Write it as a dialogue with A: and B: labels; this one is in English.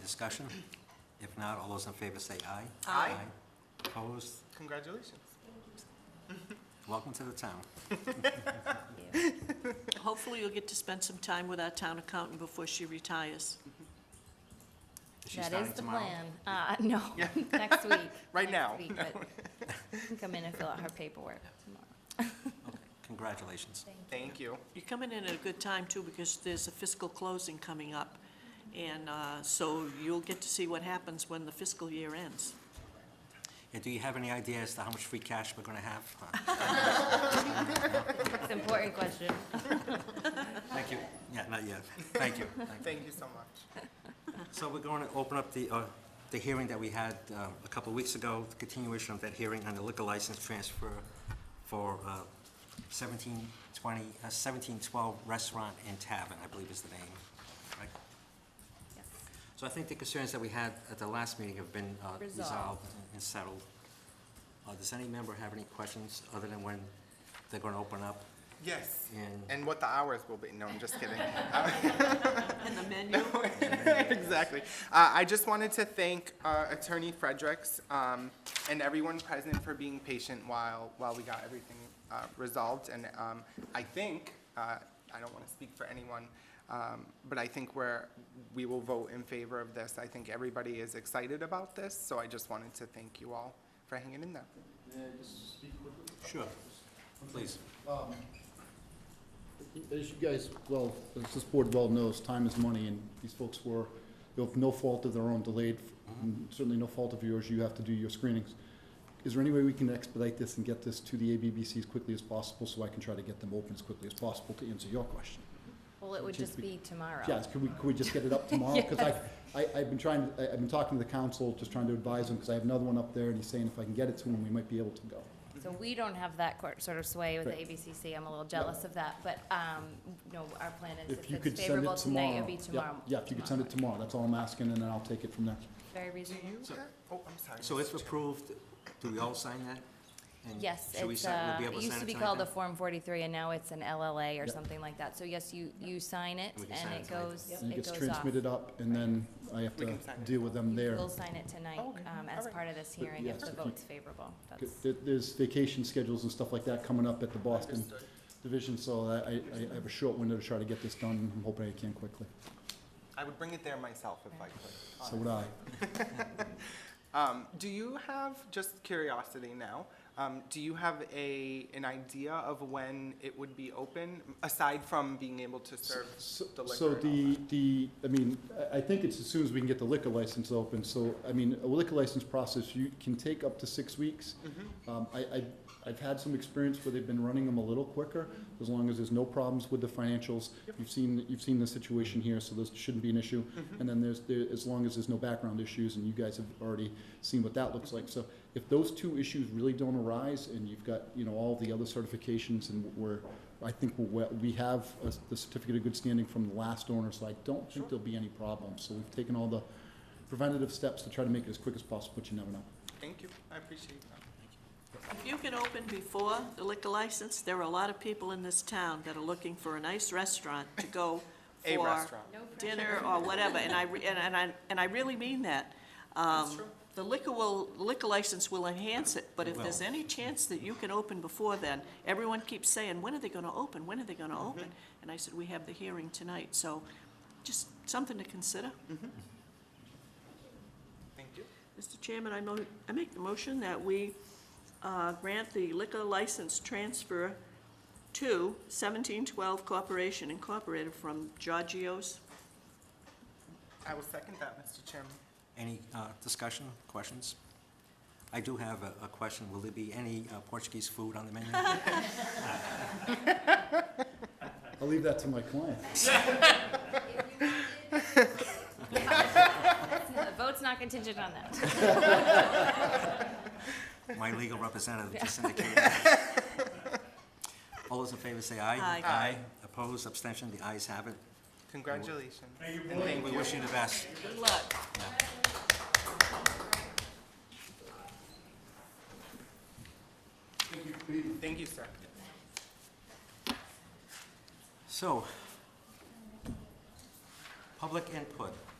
A: discussion? If not, all those in favor say aye.
B: Aye.
A: Opposed?
B: Congratulations.
A: Welcome to the town.
C: Hopefully, you'll get to spend some time with our town accountant before she retires.
A: Is she
D: That
A: starting
D: is the
A: tomorrow?
D: plan. Uh, no, next week.
B: Right
D: Next
B: now.
D: week, but she can Come in and fill out her paperwork tomorrow.
A: Okay, Congratulations.
B: Thank you.
C: You're coming in at a good time, too, because there's a fiscal closing coming up, and uh, so you'll get to see what happens when the fiscal year ends.
A: Yeah, do you have any idea as to how much free cash we're going to have?
D: It's an important question.
A: Thank you. Yeah, not yet. Thank you. Thank you.
B: Thank you so much.
A: So we're going to open up the, uh, the hearing that we had uh, a couple of weeks ago, the continuation of that hearing on the liquor license transfer for uh, 1720, uh, 1712 Restaurant and Tavern, I believe is the name, right?
D: Yes.
A: So I think the concerns that we had at the last meeting have been uh,
D: Resolved.
A: resolved and settled. Uh, Does any member have any questions other than when they're going to open up?
B: Yes.
A: And-
B: And what the hours will be. No, I'm just kidding.
C: And the menu,
B: exactly. Uh, I just wanted to thank uh, Attorney Fredericks um, and everyone present for being patient while, while we got everything uh, resolved. And um, I think, uh, I don't want to speak for anyone, um, but I think we're, we will vote in favor of this. I think everybody is excited about this, so I just wanted to thank you all for hanging in there.
A: Sure. Please.
E: Um, As you guys, well, as this board well knows, time is money, and these folks were, of no fault of their own, delayed, and certainly no fault of yours, you have to do your screenings. Is there any way we can expedite this and get this to the ABBC as quickly as possible, so I can try to get them open as quickly as possible to answer your question?
D: Well, it would
E: Just
D: just
E: be-
D: be tomorrow.
E: Yes, could we, could we just get it up tomorrow? Because I, I, I've been trying, I- I've been talking to the council, just trying to advise him, because I have another one up there, and he's saying if I can get it to him, we might be able to go.
D: So we don't have that court- sort of sway with the
E: Right.
D: ABCC. I'm a little jealous of that, but, um, no, our plan is
E: If you
D: if
E: could
D: it's
E: send
D: favorable
E: it
D: tonight,
E: tomorrow.
D: it'll be
E: Yep,
D: tomorrow.
E: Yeah, if you could send it tomorrow, that's all I'm asking, and then I'll take it from there.
D: Very
B: Do
D: reasonable.
B: you have- Oh, I'm sorry.
A: So
B: Mr.
A: if approved, do we all sign that? And
D: Yes,
A: should we
D: it's,
A: sign- we'll
D: uh,
A: be able
D: it used
A: sign
D: to be
A: tonight
D: called a
A: then?
D: Form 43, and now it's an LLA or
E: Yep.
D: something like that. So yes, you, you sign it,
A: And we can sign
D: and
A: it
D: it
A: tonight.
D: goes,
E: And it
D: it
E: gets
D: goes off.
E: transmitted up, and then I have
B: We
E: to
B: can sign it.
E: deal with them there.
D: We'll sign it tonight,
B: Okay,
D: um, as
B: alright.
D: part of this hearing, if
E: yes,
D: the
E: if you-
D: vote's favorable.
E: Good.
D: That's,
E: There- There's vacation schedules and stuff like that coming up at the Boston Division, so I, I- I have a short window to try to get this done. I'm hoping I can quickly.
B: I would bring it there myself if I could.
E: So would I.
B: Um, do you have, just curiosity now, um, do you have a, an idea of when it would be open, aside from being able to serve
E: So
B: the liquor?
E: so
B: and all
E: the,
B: that?
E: the, I mean, I, I think it's as soon as we can get the liquor license open, so, I mean, a liquor license process, you can take up to six weeks.
B: Mm-hmm.
E: Um, I, I, I've had some experience where they've been running them a little quicker, as long as there's no problems with the financials. You've seen, you've seen the situation here, so this shouldn't be an issue.
B: Mm-hmm.
E: And then there's, there, as long as there's no background issues, and you guys have already seen what that looks
B: Mm-hmm.
E: like. So if those two issues really don't arise, and you've got, you know, all the other certifications, and we're, I think we're, well- we have uh, the certificate of good standing from the last owner, so I don't think there'll be any problems. So we've taken all the preventative steps to try to make it as quick as possible, but you never know.
B: Thank you, I appreciate that.
C: if you can open before the liquor license, there are a lot of people in this town that are looking for a nice restaurant to go for.
B: A restaurant.
C: dinner or whatever, and I, re- and and I, and I really mean that. Um, The liquor will, liquor license will enhance it, but if there's
A: will.
C: any chance that you can open before then, everyone keeps saying, when are they gonna open, when are they gonna open? And I said, we have the hearing tonight, so just something to consider.
B: Thank you.
C: Mr. Chairman, I mo, I make the motion that we uh, grant the liquor license transfer to seventeen twelve Corporation Incorporated from Giorgio's.
B: I will second that, Mr. Chairman.
A: Any uh, discussion, questions? I do have a a question. Will there be any uh, Portuguese food on the menu?
E: I'll leave that to my client.
D: the vote's not contingent on that.
A: My legal representative just indicated. All those in favor say aye.
C: Aye.
A: Aye. Opposed, abstention, the ayes have it.
B: Congratulations. And
A: And we wish you the best.
C: Good luck.
B: Thank you, sir.
A: So, public input.